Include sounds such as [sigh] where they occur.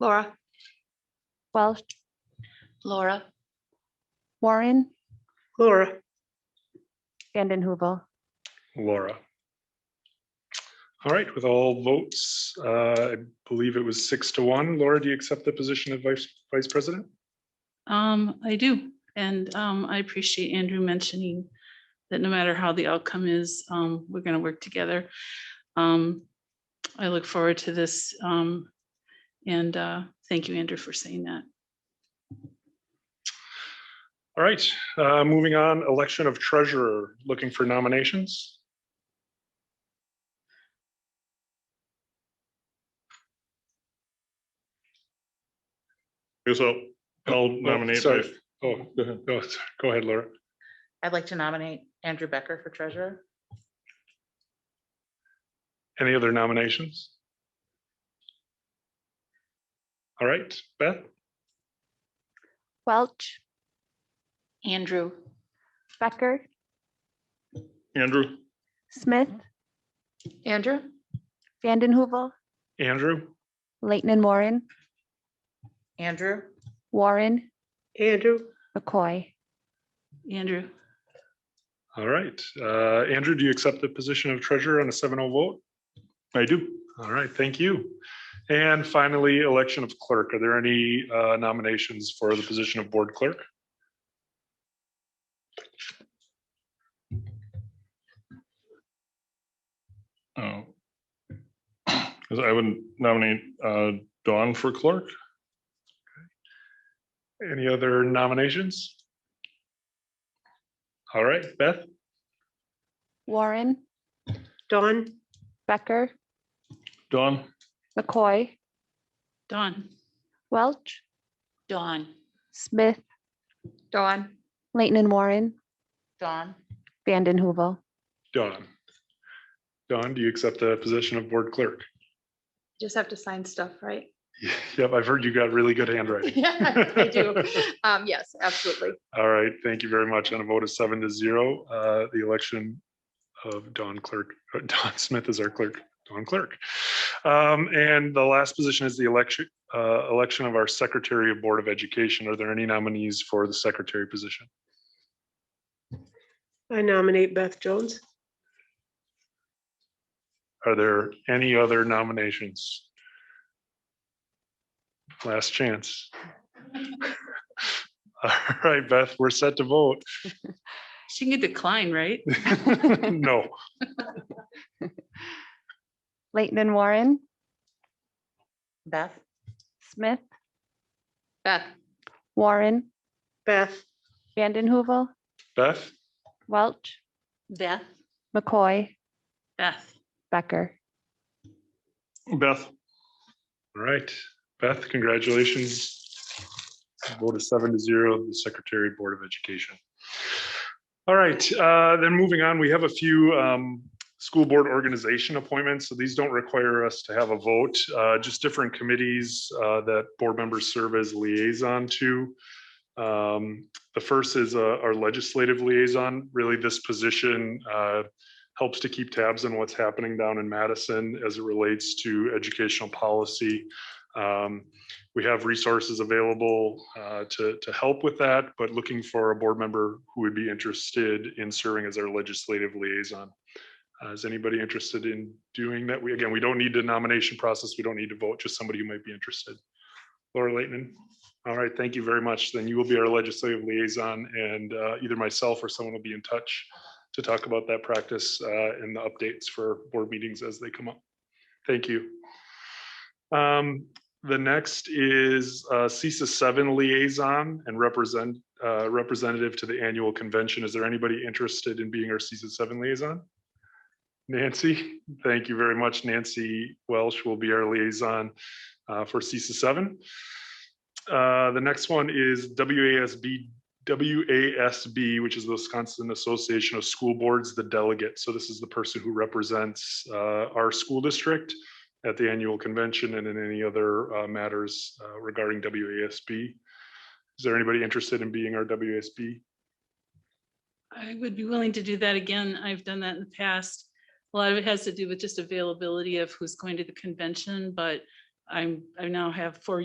Laura, Welsh, Laura, Warren, Laura. Vanden Heuvel. Laura. All right, with all votes, uh, I believe it was six to one. Laura, do you accept the position of vice, vice president? Um, I do, and um, I appreciate Andrew mentioning that no matter how the outcome is, um, we're gonna work together. Um, I look forward to this, um, and uh, thank you, Andrew, for saying that. All right, uh, moving on, election of treasurer, looking for nominations. Guess I'll, I'll nominate. Oh, sorry. my- Oh, Go ahead. oh, sorry. go ahead, Laura. I'd like to nominate Andrew Becker for treasurer. Any other nominations? All right, Beth, Welch, Andrew, Becker, Andrew, Smith, Andrew, Vanden Heuvel, Andrew, Leighton and Warren, Andrew, Warren, Andrew, McCoy. Andrew, all right. Uh, Andrew, do you accept the position of treasurer on a 7-0 vote? I do. All right, thank you. And finally, election of clerk. Are there any uh, nominations for the position of board clerk? Oh. 'Cause I would nominate uh, Dawn for clerk. Any other nominations? All right, Beth, Warren, Dawn, Becker, Dawn, McCoy, Don, Welch, Dawn, Smith, Dawn, Leighton and Warren, Don, Vanden Heuvel. Dawn. Dawn, do you accept the position of board clerk? [laughs] just have to sign stuff, [laughs] right? Yep, I've heard you got really good handwriting. Yeah, I do. [laughs] Um, yes, absolutely. All right, thank you very much. On a vote of seven to zero, uh, the election of Don Clerk, uh, [laughs] Don Smith is our clerk, Don Clerk. Um, And the last position is the election, uh, election of our Secretary of Board of Education. Are there any nominees for the secretary position? I nominate Beth Jones. Are there any other nominations? Last chance. All right, Beth, we're set to vote. [laughs] she can decline, right? No. Leighton and Warren, Beth, Smith, Beth, Warren, Beth, Vanden Heuvel, Beth? Welch, Beth, McCoy, Beth, Becker. Beth, All right, Beth, congratulations. Vote of seven to zero, the Secretary Board of Education. All right, uh, then moving on, we have a few um, school board organization appointments. So these don't require us to have a vote, uh, just different committees uh, that board members serve as liaison to. Um, The first is uh, our legislative liaison. Really, this position uh, helps to keep tabs on what's happening down in Madison as it relates to educational policy. Um, We have resources available uh, to, to help with that, but looking for a board member who would be interested in serving as our legislative liaison. Uh, Is anybody interested in doing that? We, again, we don't need a nomination process. We don't need to vote, just somebody who might be interested. Laura Leighton, all right, thank you very much. Then you will be our legislative liaison and uh, either myself or someone will be in touch to talk about that practice uh, and the updates for board meetings as they come up. Thank you. Um, The next is uh, CISA seven liaison and represent, uh, representative to the annual convention. Is there anybody interested in being our CISA seven liaison? Nancy, thank you very much. Nancy Welsh will be our liaison uh, for CISA seven. Uh, The next one is WASB WASB, which is the Wisconsin Association of School Boards, the delegate. So this is the person who represents uh, our school district at the annual convention and in any other uh, matters uh, regarding WASB. Is there anybody interested in being our WASB? I would be willing to do that again. I've done that in the past. A lot of it has to do with just availability of who's going to the convention, but I'm, I now have four